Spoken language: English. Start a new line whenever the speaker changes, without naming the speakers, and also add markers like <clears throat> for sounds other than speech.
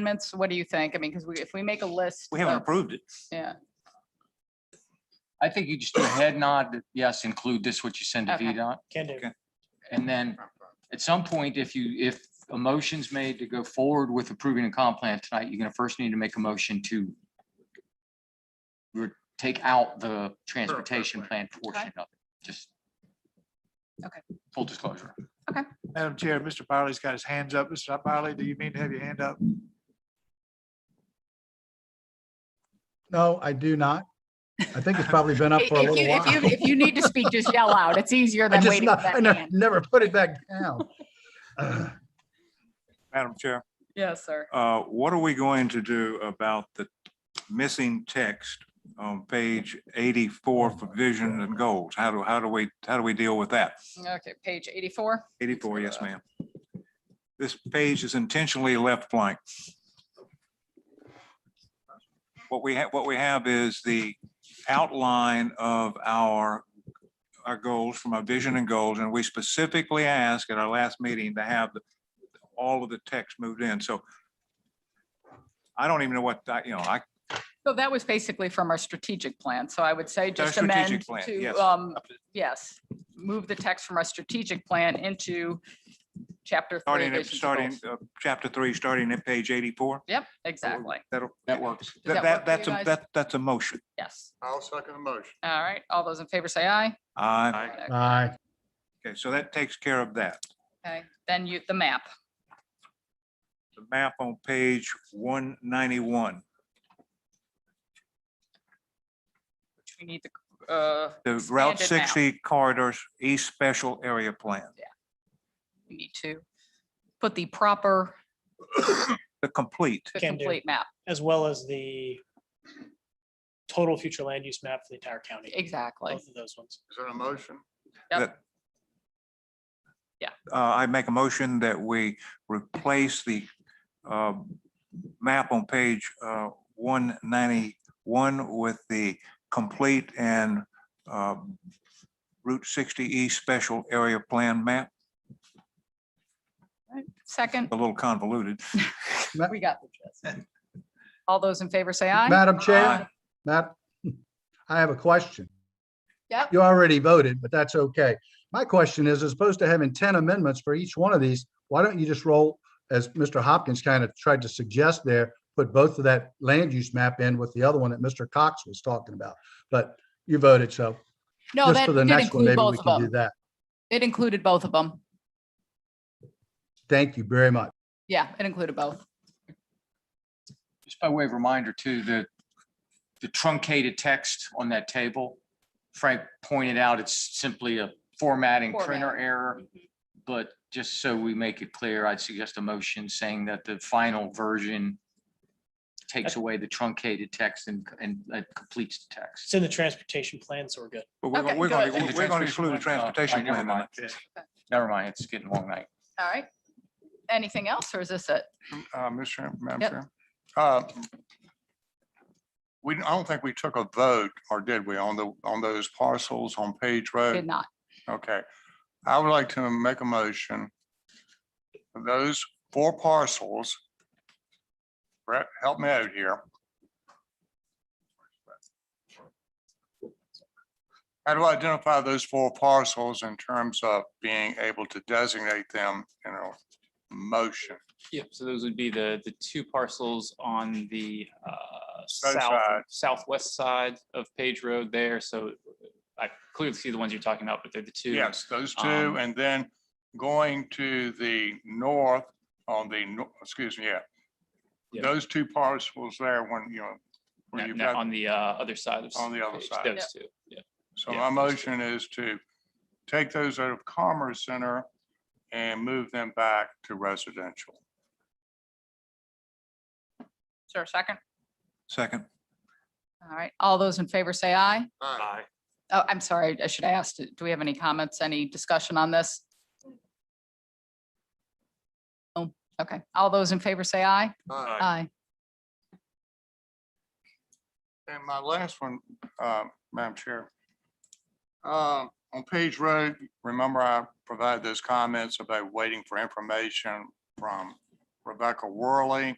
amendments? What do you think? I mean, because we, if we make a list.
We haven't
of-
approved it.
Yeah,
I think you just do a head nod, that, yes, include this, what you send to
Okay.
VDOT.
Can do.
Okay.
And then at some point, if you, if a motion's made to go forward with approving a comp plan tonight, you're gonna first need to make a motion to re- take out the transportation plan portion of it, just.
Okay.
Full disclosure.
Madam Chair, Mr. Byerly's got his hands up. Mr. Byerly, do you mean to have your hand up?
No, I do not. I think it's probably been up
If
for a
if
little
you, if
while. <laughs>
you, if you need to speak, just yell out. It's easier
I
than
just,
waiting for
not- I
that
never,
hand.
never put it back
<laughs>
down. <clears throat> Uh,
Madam Chair,
Yes, sir.
uh, what are we going to do about the missing text on page eighty-four for vision and goals? How do, how do we, how do we deal with that?
Okay, page eighty-four.
Eighty-four, yes, ma'am. This page is intentionally left blank. What we have, what we have is the outline of our, our goals from our vision and goals, and we specifically asked at our last meeting to have the- all of the text moved in, so I don't even know what, I- you know, I,
So that was basically from our strategic plan. So I would say
our
just
strategic
amend
plan,
to,
yes.
um, yes, move the text from our strategic plan into chapter three.
starting, at-
visions and
starting,
goals.
uh, chapter three, starting at page eighty-four,
Yep, exactly.
that'll,
That works.
that work
that,
for you
that- that's, a
guys?
that, that's a motion.
Yes.
I'll second the motion.
All right. All those in favor say aye.
Uh,
Aye.
okay, so that takes care of that.
Okay, then you, the map.
the map on page one ninety-one.
which We need the, uh,
The Route
Expanded map.
sixty corridors, East Special Area Plan.
we need to put the proper,
The complete,
the
Can do.
complete map.
As well as the total future land use map for the entire county,
Exactly.
Oh.
both of those ones.
Is there a motion?
Yep.
that.
Yeah.
Uh, I make a motion that we replace the, um, map on page, uh, one ninety-one with the complete and, um, Route sixty East Special Area Plan map,
Second,
a little convoluted.
Oh.
we got the gist.
<laughs>
All those in favor say aye.
Madam
Aye.
Chair, Matt, I have a question.
Yep.
You already voted, but that's okay. My question is, as opposed to having ten amendments for each one of these, why don't you just roll, as Mr. Hopkins kind of tried to suggest there, put both of that land use map in with the other one that Mr. Cox was talking about? But you voted, so
No,
just
that
for the
did
next one,
include
maybe we
both of
can do
them.
that.
It included both of them.
Thank you very much.
Yeah, it included both.
Just by way of reminder too, the, the truncated text on that table, Frank pointed out, it's simply a formatting printer
Formatting.
error.
Mm-hmm.
But just so we make it clear, I'd suggest a motion saying that the final version takes away the truncated text and, and uh, completes the
It's
text.
in the transportation plan, so we're good.
But we're,
Okay,
gonna- we're gonna,
good.
we're gonna exclude the
Oh,
transportation
never
plan.
mind. Never mind, it's getting long night.
All right. Anything else or is this it?
Uh, Mr. Madam
Yep.
Chair. Uh, We, I don't think we took a vote, or did we, on the, on those parcels on Page
Did
Road?
not.
Okay. I would like to make a motion. for Those four parcels. Brett, help me out here. How do I identify those four parcels in terms of being able to designate them in a motion?
Yep, so those would be the, the two parcels on the uh,
side.
south, southwest side of Page Road there, so uh, I clearly see the ones you're talking about, but they're the two.
Yes, those
um,
two, and then going to the north on the, no- excuse me, yeah.
Yeah.
Those two parcels there when, you know,
No,
when you've
no,
got,
On the uh, other side of.
On the other
Page,
side.
Those two, yeah.
so
yeah,
my
those two.
motion is to take those out of Commerce Center and move them back to residential.
Is there a second?
Second.
All right. All those in favor say aye.
Aye.
Oh, I'm sorry. I should ask, do we have any comments, any discussion on this? Oh, okay. All those in favor say aye.
Uh,
Aye.
And my last one, uh, Madam Chair. Uh, On Page Road, remember I provided those comments about waiting for information from Rebecca Worley